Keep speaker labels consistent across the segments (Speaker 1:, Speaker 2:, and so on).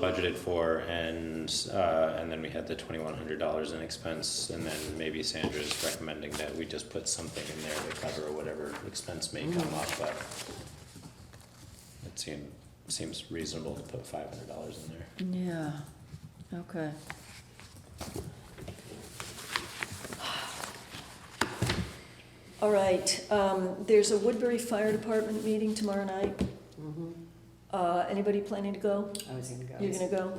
Speaker 1: budgeted for and, uh, and then we had the twenty-one hundred dollars in expense. And then maybe Sandra's recommending that we just put something in there to cover whatever expense may come up, but it seem, seems reasonable to put five hundred dollars in there.
Speaker 2: Yeah, okay.
Speaker 3: All right, um, there's a Woodbury Fire Department meeting tomorrow night. Uh, anybody planning to go?
Speaker 4: I was gonna go.
Speaker 3: You're gonna go?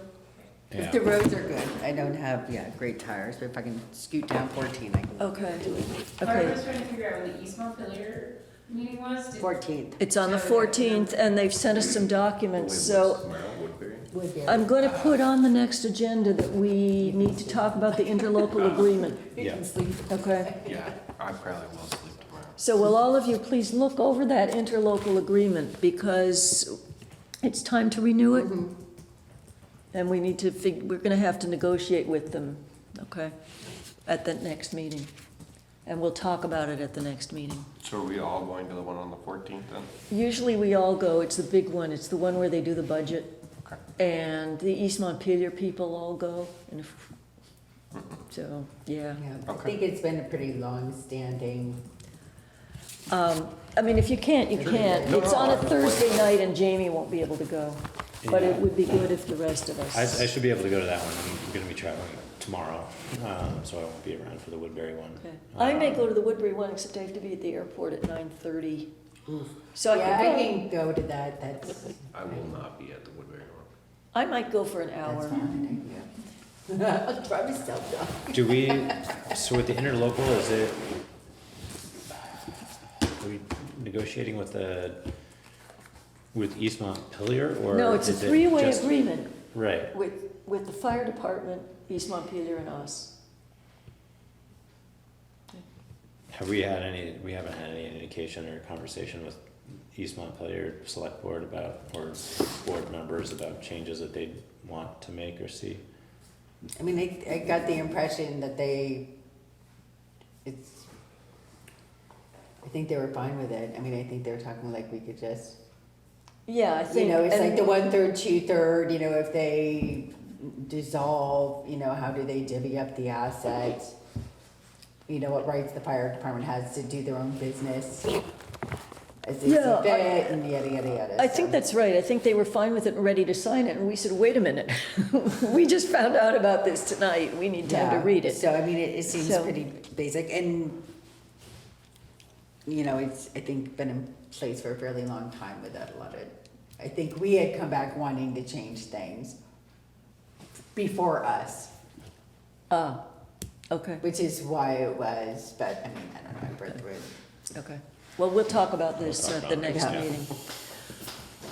Speaker 4: If the
Speaker 1: Yeah,
Speaker 4: roads are good, I don't have, yeah, great tires, but if I can scoot down fourteen, I can.
Speaker 3: Okay,
Speaker 5: Laura
Speaker 3: okay.
Speaker 5: was trying to figure out when the East Montpelier meeting was. Did-
Speaker 4: Fourteenth.
Speaker 3: It's on the fourteenth and they've sent us some documents, so I'm gonna put on the next agenda that we need to talk about the interlocal agreement,
Speaker 1: Yeah.
Speaker 3: okay?
Speaker 6: Yeah, I probably will sleep tomorrow.
Speaker 3: So will all of you please look over that interlocal agreement, because it's time to renew it? And we need to fig, we're gonna have to negotiate with them, okay, at the next meeting. And we'll talk about it at the next meeting.
Speaker 6: So are we all going to the one on the fourteenth then?
Speaker 3: Usually we all go, it's the big one, it's the one where they do the budget.
Speaker 6: Okay.
Speaker 3: And the East Montpelier people all go, and if, so, yeah.
Speaker 4: I think it's been a pretty long-standing,
Speaker 3: Um, I mean, if you can't, you can't. It's on a Thursday night and Jamie won't be able to go. But it would be good if the rest of
Speaker 1: I, I
Speaker 3: us.
Speaker 1: should be able to go to that one. I'm gonna be traveling tomorrow, um, so I won't be around for the Woodbury one.
Speaker 3: Okay. I may go to the Woodbury one, except I have to be at the airport at nine thirty. So I
Speaker 4: yeah, I
Speaker 3: could go,
Speaker 4: can go to that, that's,
Speaker 6: I will not be at the Woodbury one.
Speaker 3: I might go for an
Speaker 4: that's
Speaker 3: hour.
Speaker 4: fine, yeah. I'll drive myself down.
Speaker 1: Do we, so with the interlocal, is it, are we negotiating with the, with East Montpelier or?
Speaker 3: No, it's a
Speaker 1: is it
Speaker 3: three-way
Speaker 1: just-
Speaker 3: agreement
Speaker 1: Right,
Speaker 3: with, with the fire department, East Montpelier and us.
Speaker 1: have we had any, we haven't had any indication or conversation with East Montpelier Select Board about, or board members about changes that they'd want to make or see?
Speaker 4: I mean, I, I got the impression that they, it's, I think they were fine with it. I mean, I think they were talking like we could just
Speaker 3: Yeah, I think.
Speaker 4: You know, it's
Speaker 3: and-
Speaker 4: like the one third, two third, you know, if they dissolve, you know, how do they divvy up the assets? You know, what rights the fire department has to do their own business as they see
Speaker 3: Yeah, I-
Speaker 4: fit and yada, yada, yada.
Speaker 3: I
Speaker 4: so.
Speaker 3: think that's right. I think they were fine with it and ready to sign it, and we said, wait a minute. We just found out about this tonight. We need time to
Speaker 4: Yeah,
Speaker 3: read it.
Speaker 4: So, I mean, it, it seems
Speaker 3: So-
Speaker 4: pretty basic and, you know, it's, I think, been in place for a fairly long time without a lot of, I think we had come back wanting to change things before us.
Speaker 3: Ah, okay,
Speaker 4: Which is why it was, but I mean, I don't remember the room.
Speaker 3: okay. Well, we'll talk about this
Speaker 1: We'll
Speaker 3: at
Speaker 1: talk
Speaker 3: the
Speaker 1: about
Speaker 3: next
Speaker 4: it, yeah.
Speaker 3: meeting.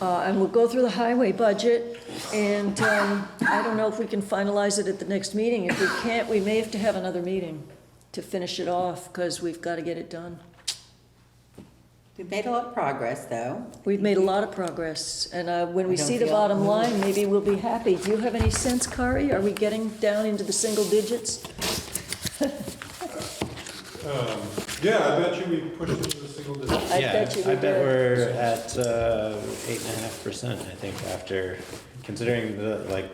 Speaker 3: Uh, and we'll go through the highway budget, and, um, I don't know if we can finalize it at the next meeting. If we can't, we may have to have another meeting to finish it off, because we've got to get it done.
Speaker 4: We've made a lot of progress, though.
Speaker 3: We've made a lot of progress, and, uh, when we
Speaker 4: I don't
Speaker 3: see the
Speaker 4: feel-
Speaker 3: bottom line, maybe we'll be happy. Do you have any sense, Kari? Are we getting down into the single digits?
Speaker 7: Um, Yeah, I bet you we pushed it to the single digit.
Speaker 3: I
Speaker 1: Yeah,
Speaker 3: bet you we
Speaker 1: I bet
Speaker 3: did.
Speaker 1: we're at uh, eight and a half percent, I think, after considering the, like,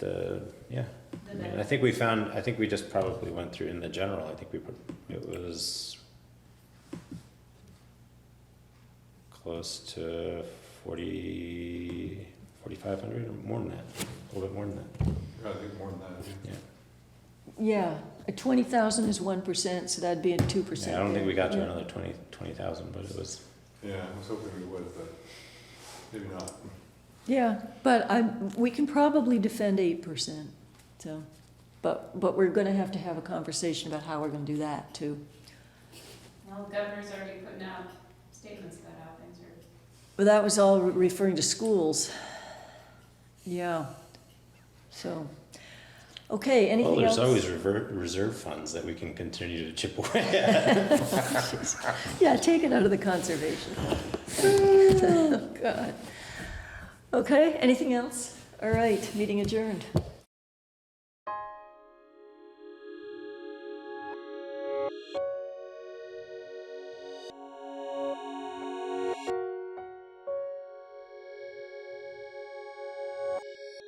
Speaker 1: the, yeah. I mean, I think we found, I think we just probably went through in the general, I think we, put it was close to forty, forty-five hundred, or more than that, a little bit more than that,
Speaker 7: I think more than that.
Speaker 1: yeah.
Speaker 3: Yeah, a twenty thousand is one percent, so that'd be a two percent.
Speaker 1: Yeah, I don't think we got to another twenty, twenty thousand, but it was,
Speaker 7: Yeah, I was hoping we would, but maybe not.
Speaker 3: Yeah, but I, we can probably defend eight percent, so, but, but we're gonna have to have a conversation about how we're gonna do that too.
Speaker 5: Well, the governor's already putting out statements about how things are
Speaker 3: But that was all referring to schools. Yeah, so, okay, anything
Speaker 1: well,
Speaker 3: else?
Speaker 1: there's always rever reserve funds that we can continue to chip away at.
Speaker 3: Yeah, take it out of the conservation. fund. Oh, God. Okay, anything else? All right, meeting adjourned.